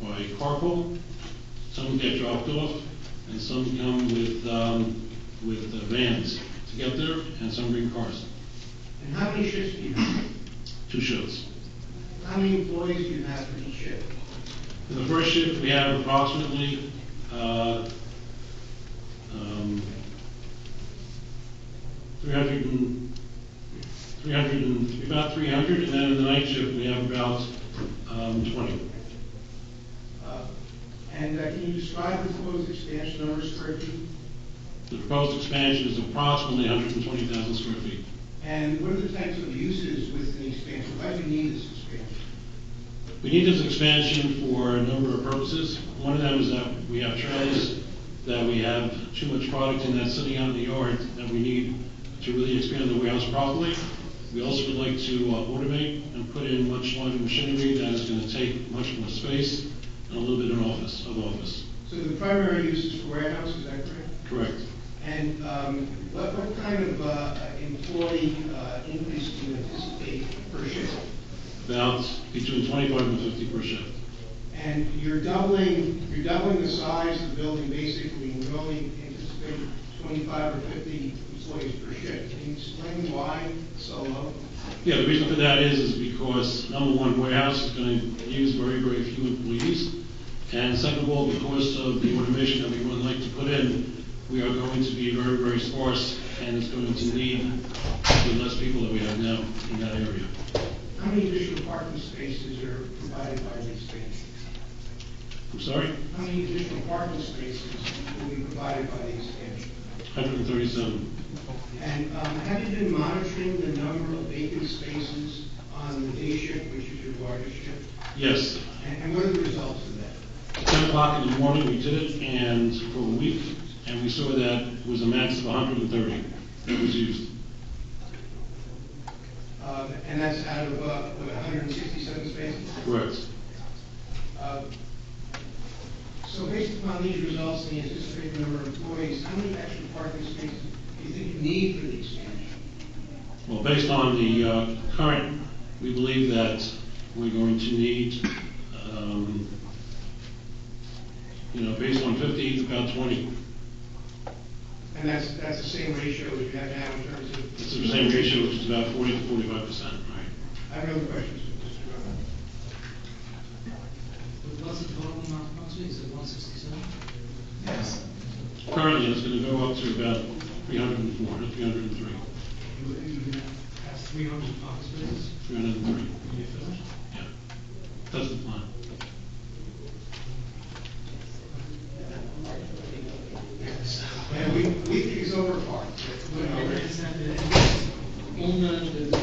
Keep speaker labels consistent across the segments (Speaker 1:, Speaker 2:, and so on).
Speaker 1: they carpool, some get dropped off, and some come with, um, with uh, vans to get there, and some bring cars,
Speaker 2: And how many shifts do you have?
Speaker 1: two shifts.
Speaker 2: How many employees do you have for each shift?
Speaker 1: For the first shift, we have approximately, uh, um, 300 and, 300 and, about 300, and then in the night shift, we have about um, 20.
Speaker 2: Uh, And uh, can you describe the proposed expansion number of square feet?
Speaker 1: The proposed expansion is approximately 120,000 square feet.
Speaker 2: And what are the types of uses with the expansion? Why do you need this expansion?
Speaker 1: We need this expansion for a number of purposes. One of them is that we have trailers, that we have too much product in that sitting out in the yard, that we need to really expand the warehouse properly. We also would like to uh, automate and put in much larger machinery that is going to take much more space and a little bit of office, of office.
Speaker 2: So the primary use is for warehouse, is that correct?
Speaker 1: Correct.
Speaker 2: And um, what, what kind of uh, employee uh, increase do you anticipate per shift?
Speaker 1: About between 25 and 50 per shift.
Speaker 2: And you're doubling, you're doubling the size of the building basically, and you only anticipate twenty-five or fifty employees per shift. Can you explain why so low?
Speaker 1: Yeah, the reason for that is, is because, number one, warehouse is going to use very, very few employees. And second of all, because of the automation that we would like to put in, we are going to be very, very sparse, and it's going to lead to less people that we have now in that area.
Speaker 2: How many additional parking spaces are provided by the expansion?
Speaker 1: I'm sorry,
Speaker 2: How many additional parking spaces will be provided by the expansion?
Speaker 1: 137.
Speaker 2: And um, have you been monitoring the number of vacant spaces on the day shift, which is your largest shift?
Speaker 1: Yes,
Speaker 2: And and what are the results of that?
Speaker 1: 10 o'clock in the morning, we did it, and for a week, and we saw that was a max of 130 that was used.
Speaker 2: Um, And that's out of, uh, what, 167 spaces?
Speaker 1: Correct.
Speaker 2: Uh, So based upon these results and the anticipated number of employees, how many extra parking spaces do you think you need for the expansion?
Speaker 1: Well, based on the uh, current, we believe that we're going to need, um, you know, based on 50, it's about 20.
Speaker 2: And that's, that's the same ratio that you have now in terms of...
Speaker 1: It's the same ratio, which is about 40 to 45 percent, right?
Speaker 2: I have no other questions, Mr. Chairman.
Speaker 3: But what's the total amount of approximately, is it one sixty-seven?
Speaker 4: Yes.
Speaker 1: Currently, it's going to go up to about 304, 303,
Speaker 3: You would, you would have three hundred parking spaces
Speaker 1: 303.
Speaker 3: when you finish?
Speaker 1: Yeah, that's the plan.
Speaker 2: And we, we think it's overparked.
Speaker 3: But I understand that it's owned and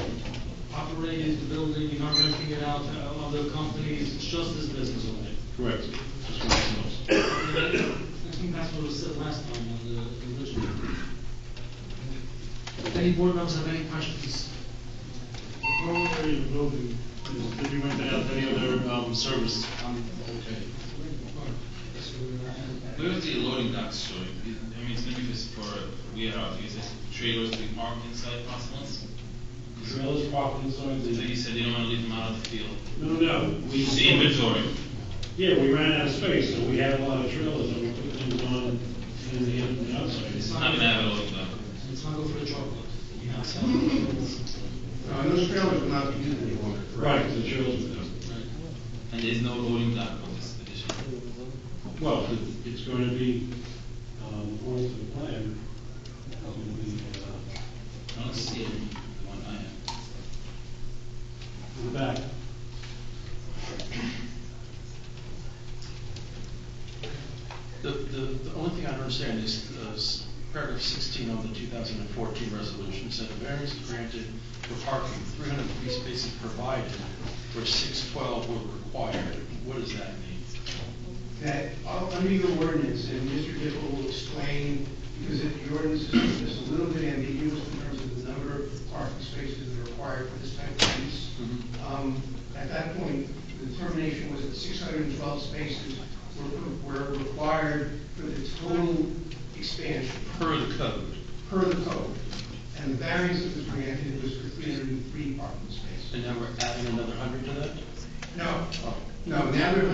Speaker 3: operated the building, you're not renting it out to other companies, it's just this business only.
Speaker 1: Correct. Just for ourselves.
Speaker 3: I think that's what was said last time on the the original. Any board members have any questions?
Speaker 5: Whole area of the building, did you rent out any other, um, service?
Speaker 6: Where is the loading dock stored? I mean, it's maybe just for warehouse, is it trailers to be parked inside possibles?
Speaker 1: Trailers parked inside
Speaker 6: So you said you don't wanna leave them out of the field.
Speaker 1: No, no, we.
Speaker 6: It's the inventory.
Speaker 1: Yeah, we ran out of space, so we had a lot of trailers, and we put things on in the, in the
Speaker 6: It's
Speaker 1: outside.
Speaker 6: not gonna have a loading dock.
Speaker 3: Let's not go for a chocolate. You know, so-
Speaker 2: Uh, those trailers will not be used any longer.
Speaker 1: Right, the trailers, were done.
Speaker 6: And there's no loading dock on this addition.
Speaker 1: well, it- it's going to be, um, according to the plan, it's going to be, uh,
Speaker 6: I don't see it, the one I have.
Speaker 1: in the back.
Speaker 4: The, the, the only thing I don't understand is uh, s- paragraph sixteen of the two thousand and fourteen resolution said a variance is granted for parking, three hundred three spaces provided where six twelve were required. What does that mean?
Speaker 2: That, uh, under your ordinance, and Mr. Dipple will explain, because if the ordinance is is a little bit ambiguous in terms of the number of parking spaces that are required for this type of use.
Speaker 4: Mm-hmm.
Speaker 2: Um, At that point, the determination was that six hundred and twelve spaces were, were required for the total expansion.
Speaker 4: Per the code.
Speaker 2: per the code, and the variance that was granted was for three hundred and three parking spaces.
Speaker 4: And now we're adding another hundred to that?
Speaker 2: No, no, now they're